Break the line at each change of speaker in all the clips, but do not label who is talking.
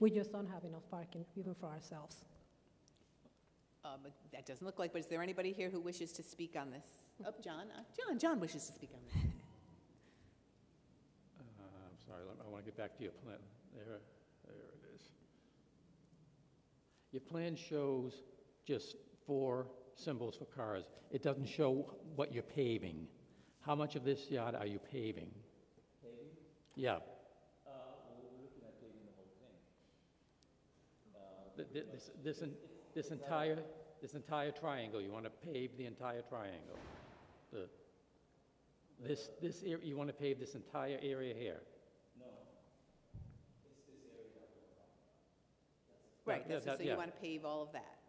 We just don't have enough parking, even for ourselves.
Um, That doesn't look like, but is there anybody here who wishes to speak on this? Up, John, Uh, John, John wishes to speak on this.
Uh, I'm sorry, let- I want to get back to your plan. There, there it is. Your plan shows just four symbols for cars. It doesn't show what you're paving. How much of this yard are you paving? Paving? Yeah. Th- th- This, this, en- this entire, this entire triangle, you want to pave the entire triangle? The- This, this, ar- you want to pave this entire area here?
Right,
yeah,
that's-
that-
so you
yeah.
want to pave all of that?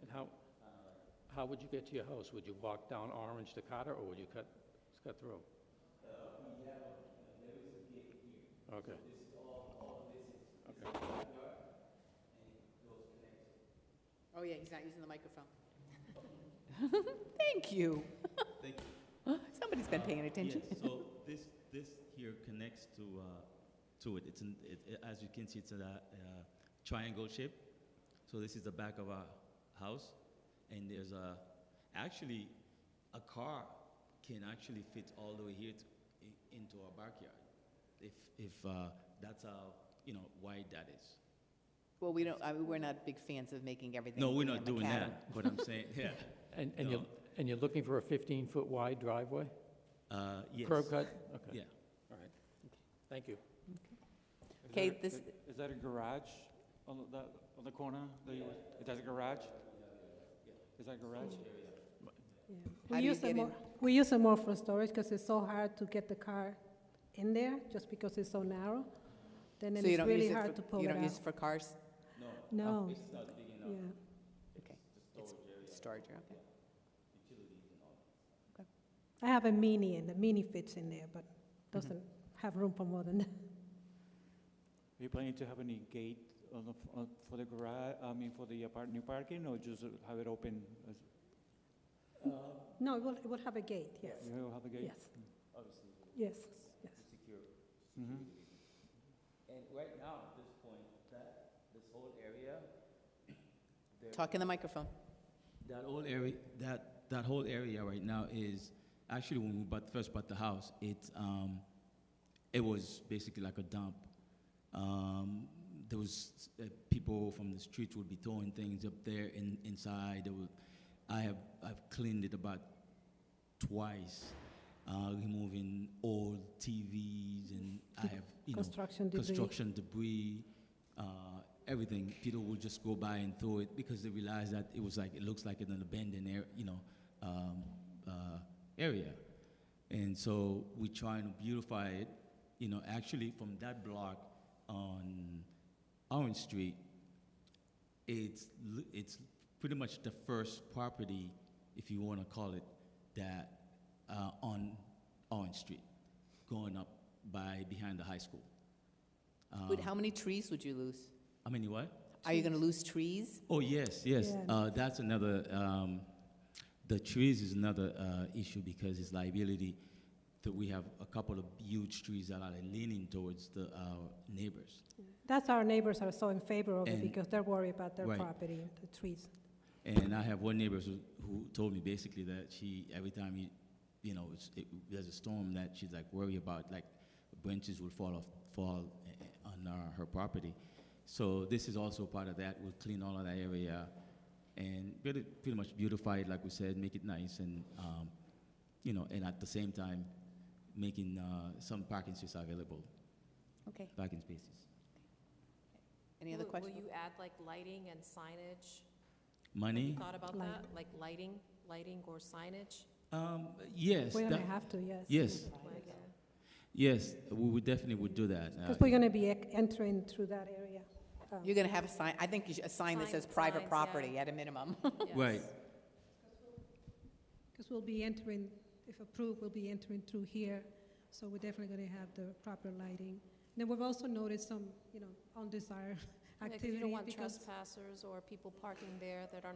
And how, how would you get to your house? Would you walk down Orange to Carter, or would you cut, cut through? Uh, We have, there is a gate here. Okay.
Oh, yeah, he's not using the microphone. Thank you.
Thank you.
Somebody's been
Uh,
paying attention.
Yes, so this, this here connects to, uh, to it. It's, an- it, it- as you can see, it's a, uh triangle shape. So this is the back of our house, and there's a, actually, a car can actually fit all the way here to, i- into our backyard. If, if, uh, that's how, you know, wide that is.
Well, we don't, I mean, we're not big fans of making everything.
No, we're
become
not
a
doing
cabin.
that, but I'm saying, yeah.
And, and you're, and you're looking for a 15-foot wide driveway?
Uh, yes.
Curb cut? Okay,
Yeah.
all right. Thank you.
Is
Okay,
that a-
this-
i- Is that a garage on the, that- on the corner? that you were- Is that a garage? Is that a garage?
Yeah.
How
We
do you
use
get
it more,
in?
we use it more for storage because it's so hard to get the car in there, just because it's so narrow. Then
So
it's
you don't use
really
it
hard
for-
to pull
You
it
don't use
out.
it for cars?
No.
Oh.
Yeah.
Okay. It's Storage area, okay.
I have a mini and the mini fits in there, but doesn't have room for more than that.
Are you planning to have any gate on the, f- on- for the garage, I mean, for the apart, new parking, or just have it open? as-
No, it will, it will have a gate, yes,
You will have a gate?
yes. Yes, yes.
Mhm.
And right now, at this point, that, this whole area,
Talk in the microphone.
That whole area, that, that whole area right now is, actually, when we bought, first bought the house, it, um, it was basically like a dump. Um, there was, uh, people from the streets would be throwing things up there in, inside, there were, I have, I've cleaned it about twice, uh, removing old TVs and I have, you know,
Construction debris.
construction debris, uh, everything. People would just go by and throw it because they realized that it was like, it looks like an abandoned area, you know, um, uh, area. And so we try and beautify it, you know, actually from that block on Orange Street, it's, l- it's pretty much the first property, if you want to call it, that, uh, on Orange Street, going up by, behind the high school.
Would-
Um,
How many trees would you lose?
I mean, what?
Are you going to lose trees?
Oh, yes, yes.
Yeah.
Uh, that's another, um, the trees is another uh, issue because it's liability. That we have a couple of huge trees that are leaning towards the, our neighbors.
That's our neighbors are so in favor of it
And-
because they're worried about their
right.
property, the trees.
And I have one neighbor who, who told me basically that she, every time you, you know, it's, it, there's a storm that she's like worried about, like branches will fall off, fall eh, eh, on uh, her property. So this is also part of that. We'll clean all of that area and really pretty much beautify it, like we said, make it nice and, um, you know, and at the same time, making uh, some parking spaces available,
Okay.
parking spaces.
Any other
Will-
questions?
Will you add like lighting and signage? Have you
Money?
Thought about
Light.
that, like lighting, lighting or signage?
Um, yes.
We're
that-
gonna have to, yes.
yes,
Like, uh,
yes, we would definitely would do that. Uh,
Because we're gonna be ec- entering through that area. um,
You're going to have a sign, I think you should, a sign that
Sign-
says private
signs, yeah.
property at a minimum.
Right.
yes.
Because we'll be entering, if approved, we'll be entering through here, so we're definitely going to have the proper lighting. And Then we've also noticed some, you know, undesired
Yeah, 'cause
activities.
You don't want
because-
trespassers or people parking there that are